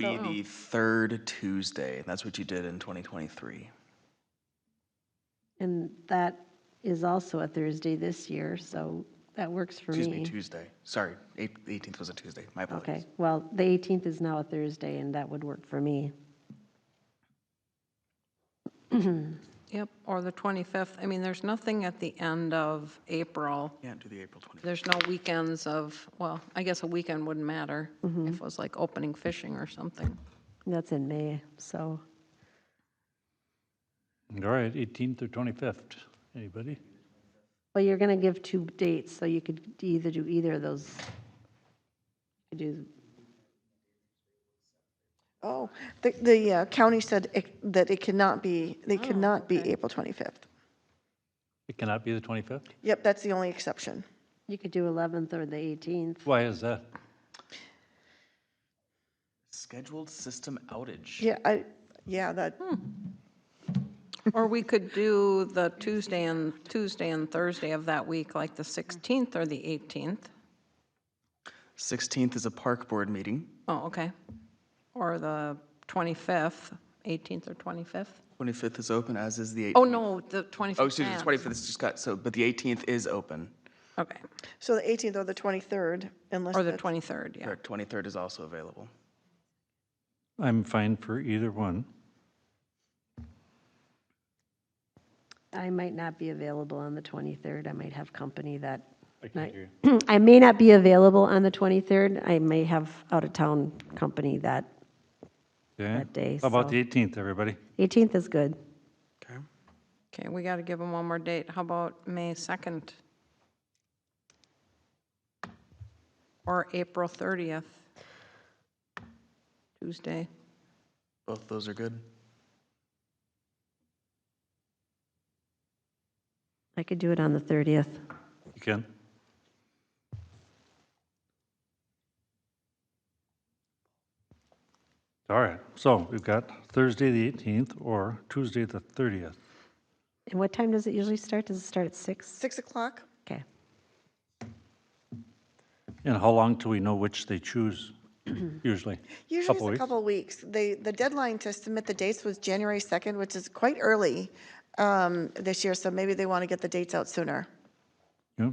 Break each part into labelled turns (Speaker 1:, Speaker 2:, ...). Speaker 1: be the third Tuesday. That's what you did in 2023.
Speaker 2: And that is also a Thursday this year, so that works for
Speaker 1: Excuse me,
Speaker 2: me.
Speaker 1: Tuesday. Sorry, eight- 18th was a Tuesday. My apologies.
Speaker 2: Okay, well, the 18th is now a Thursday, and that would work for me.
Speaker 3: Yep, or the 25th. I mean, there's nothing at the end of April.
Speaker 1: Yeah, do the April 25th.
Speaker 3: There's no weekends of, well, I guess a weekend wouldn't matter if it was like opening fishing or something.
Speaker 2: That's in May, so
Speaker 4: All right, 18th or 25th, anybody?
Speaker 2: Well, you're going to give two dates, so you could either do either of those. You do,
Speaker 5: Oh, the, the uh, county said it- that it cannot be, they cannot be April 25th.
Speaker 4: It cannot be the 25th?
Speaker 5: Yep, that's the only exception.
Speaker 2: you could do 11th or the 18th.
Speaker 4: Why is that?
Speaker 1: Scheduled system outage.
Speaker 5: Yeah, I, yeah, that,
Speaker 3: Or we could do the Tuesday and, Tuesday and Thursday of that week, like the 16th or the 18th.
Speaker 1: 16th is a park board meeting.
Speaker 3: Oh, okay. Or the 25th, 18th or 25th?
Speaker 1: 25th is open, as is the 18th.
Speaker 3: Oh, no, the 25th.
Speaker 1: Oh, excuse me,
Speaker 3: passed.
Speaker 1: 25th is just got, so, but the 18th is open.
Speaker 3: Okay,
Speaker 5: so the 18th or the 23rd, unless.
Speaker 3: or the
Speaker 5: that's-
Speaker 3: 23rd, yeah.
Speaker 1: Correct, 23rd is also available.
Speaker 4: I'm fine for either one.
Speaker 2: I might not be available on the 23rd. I might have company that
Speaker 4: I can
Speaker 2: night.
Speaker 4: hear
Speaker 2: I may not be available on the 23rd. I may have out-of-town company that,
Speaker 4: Okay.
Speaker 2: That day,
Speaker 4: How about
Speaker 2: so-
Speaker 4: the 18th, everybody?
Speaker 2: 18th is good.
Speaker 1: Okay.
Speaker 3: Okay, we got to give them one more date. How about May 2nd? Or April 30th? Tuesday.
Speaker 1: Both those are good.
Speaker 2: I could do it on the 30th.
Speaker 4: You can? All right, so we've got Thursday, the 18th, or Tuesday, the 30th.
Speaker 2: And what time does it usually start? Does it start at 6?
Speaker 5: 6 o'clock?
Speaker 2: Okay.
Speaker 4: And how long till we know which they choose, usually?
Speaker 5: Usually it's a
Speaker 4: weeks.
Speaker 5: couple of weeks. They, the deadline to submit the dates was January 2nd, which is quite early um, this year, so maybe they want to get the dates out sooner.
Speaker 4: Yeah.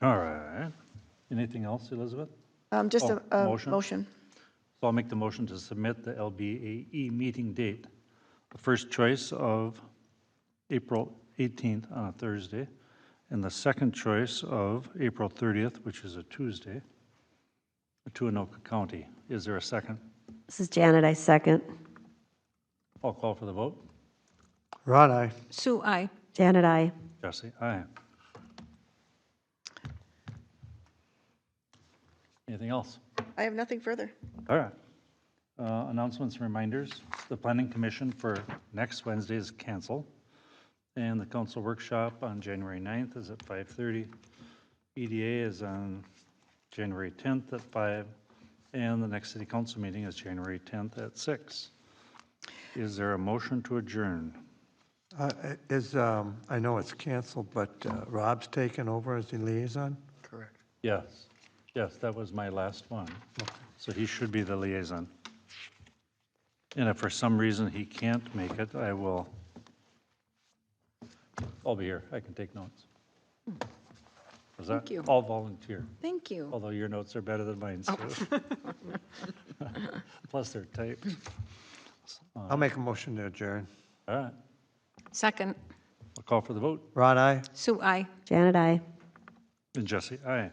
Speaker 4: All right. Anything else, Elizabeth?
Speaker 5: Um, Just a,
Speaker 4: Oh,
Speaker 5: a
Speaker 4: motion?
Speaker 5: motion.
Speaker 4: So I'll make the motion to submit the LBAE E meeting date, the first choice of April 18th on a Thursday, and the second choice of April 30th, which is a Tuesday, to Anoka County. Is there a second?
Speaker 2: This is Janet, I second.
Speaker 4: I'll call for the vote.
Speaker 6: Right, aye.
Speaker 3: Sue, I.
Speaker 2: Janet, I.
Speaker 4: Jesse, aye. Anything else?
Speaker 5: I have nothing further.
Speaker 4: All right. Uh, Announcements and reminders. The planning commission for next Wednesday is canceled. And the council workshop on January 9th is at 5:30. EDA is on January 10th at 5. And the next city council meeting is January 10th at 6. Is there a motion to adjourn?
Speaker 6: Uh, i- Is, um, I know it's canceled, but uh, Rob's taken over as the liaison?
Speaker 1: Correct.
Speaker 4: Yes. Yes, that was my last one. So he should be the liaison. And if for some reason he can't make it, I will, I'll be here. I can take notes.
Speaker 3: Hmm.
Speaker 4: Was that?
Speaker 3: Thank you.
Speaker 4: All volunteer,
Speaker 3: Thank you.
Speaker 4: although your notes are better than mine, Sue.
Speaker 3: Oh.
Speaker 4: Plus they're typed.
Speaker 6: I'll make a motion to adjourn.
Speaker 4: All right,
Speaker 3: Second,
Speaker 4: I'll call for the vote.
Speaker 6: Right, aye?
Speaker 3: Sue, I.
Speaker 2: Janet, I.
Speaker 4: And Jesse, aye.